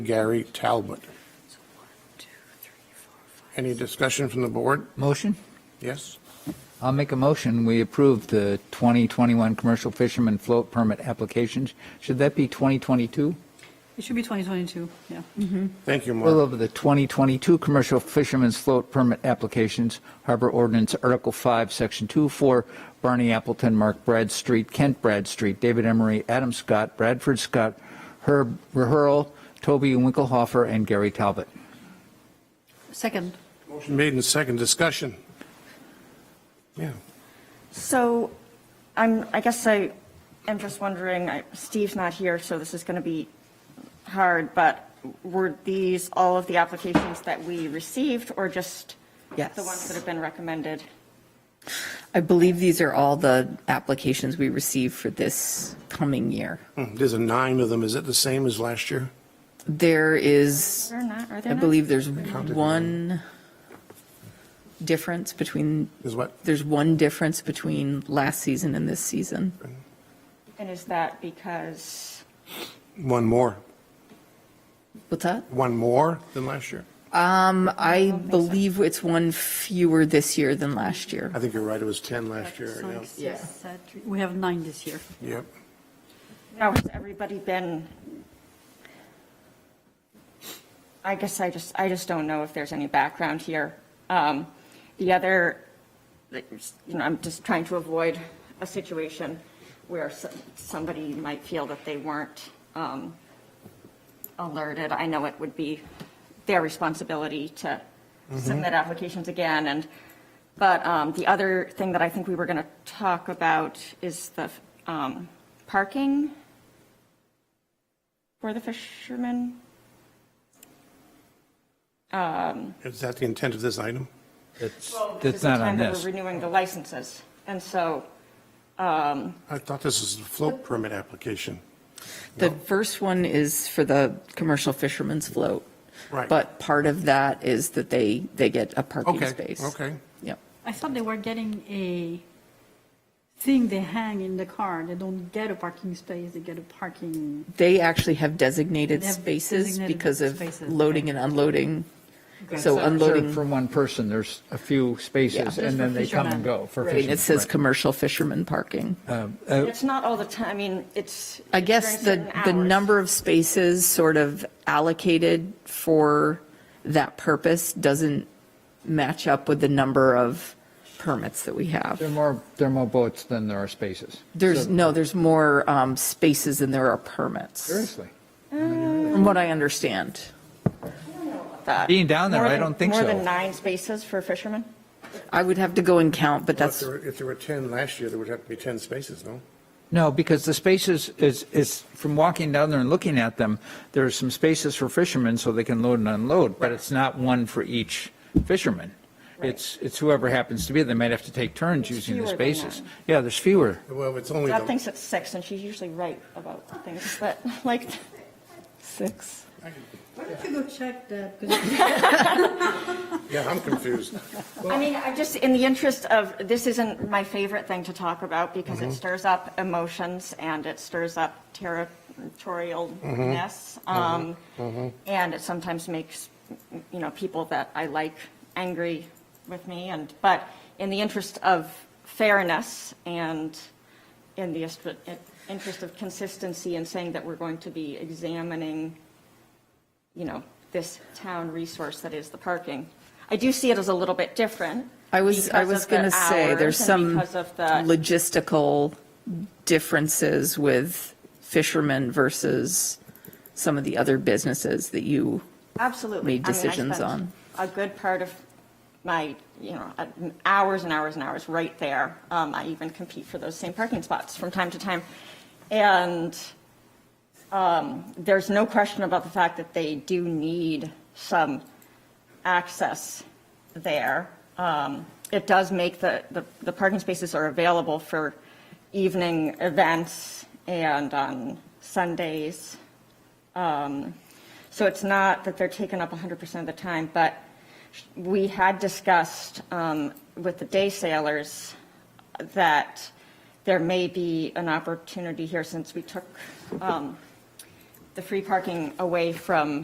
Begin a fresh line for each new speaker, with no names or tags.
Gary Talbot. Any discussion from the board?
Motion?
Yes?
I'll make a motion. We approve the 2021 commercial fisherman float permit applications. Should that be 2022?
It should be 2022, yeah.
Thank you,
Approval
Mark.
of the 2022 commercial fisherman's float permit applications, Harbor Ordinance Article 5, Section 2, for Barney Appleton, Mark Bradstreet, Kent Bradstreet, David Emery, Adam Scott, Bradford Scott, Herb Reherl, Toby Winkelhofer, and Gary Talbot.
Second,
Motion made in second discussion. Yeah.
So I'm, I guess I am just wondering, I- Steve's not here, so this is going to be hard, but were these all of the applications that we received or just the ones that
Yes.
have been recommended?
I believe these are all the applications we received for this coming year.
Hmm, There's a nine of them. Is it the same as last year?
There is,
Or not, are there
I
not?
believe there's
Counted.
one difference between,
Is what?
there's one difference between last season and this season.
And is that because,
One more.
What's that?
One more than last year?
Um, I believe it's one fewer this year than last year.
I think you're right. It was 10 last year.
so
yeah.
it's- we have nine this year.
Yep.
now has everybody been? I guess I just, I just don't know if there's any background here. Um, The other like, you know, I'm just trying to avoid a situation where s- somebody might feel that they weren't um, alerted. I know it would be their responsibility to submit applications again, and, but um, the other thing that I think we were going to talk about is the um, parking for the fishermen.
Is that the intent of this item?
That's,
This is
that's
the
not
time
on
that
this.
We're renewing the licenses, and so
I thought this was a float permit application.
The first one is for the commercial fisherman's float.
Right.
But part of that is that they, they get a parking
Okay,
space.
okay.
Yep.
I thought they were getting a thing they hang in the car. They don't get a parking space, they get a parking,
They actually have designated
They have
spaces
designated
because of
spaces,
loading
okay.
and unloading.
Okay.
So
So-
Reserved
unloading,
for one person, there's a few spaces,
Just
and
for
then they come
fishermen.
and go for
Right.
fishermen.
it says
right.
commercial fishermen parking.
Uh,
it's not all the time, I mean, it's.
I guess
during
the,
certain
the
hours.
number of spaces sort of allocated for that purpose doesn't match up with the number of permits that we
There are
have.
more, there are more boats than there are spaces.
There's,
So-
no, there's more um, spaces than there are permits.
Seriously.
From what I understand.
that.
Being down there,
More
I
than-
don't think
More
so.
than nine spaces for fishermen?
I would have to go and count, but
If
that's,
there were- if there were 10 last year, there would have to be 10 spaces, no?
No, because the spaces is, is, from walking down there and looking at them, there are some spaces for fishermen so they can load and unload, but it's not one for each fisherman. It's, it's whoever happens to be, they might have to take turns
There's
using the
fewer than
spaces.
that.
Yeah, there's fewer.
Well, it's only
God
the,
thinks it's six, and she's usually right about things, but like, six.
If you go check that,
yeah, I'm confused.
I mean, I just, in the interest of, this isn't my favorite thing to talk about because it stirs up emotions and it stirs up territorialness. um, And it sometimes makes, you know, people that I like angry with me and, but in the interest of fairness and in the est- interest of consistency and saying that we're going to be examining you know, this town resource that is the parking. I do see it as a little bit different.
I was, I
because
was
of the
going to say, there's
hours and
some
Because of the,
logistical differences with fishermen versus some of the other businesses that you,
absolutely.
made
I mean, I
decisions
spent
on.
A good part of my, you know, uh, hours and hours and hours right there. Um, I even compete for those same parking spots from time to time. And um, there's no question about the fact that they do need some access there. Um, It does make the, the- the parking spaces are available for evening events and on Sundays. Um, So it's not that they're taken up 100% of the time, but we had discussed um, with the day sailors that there may be an opportunity here since we took um, the free parking away from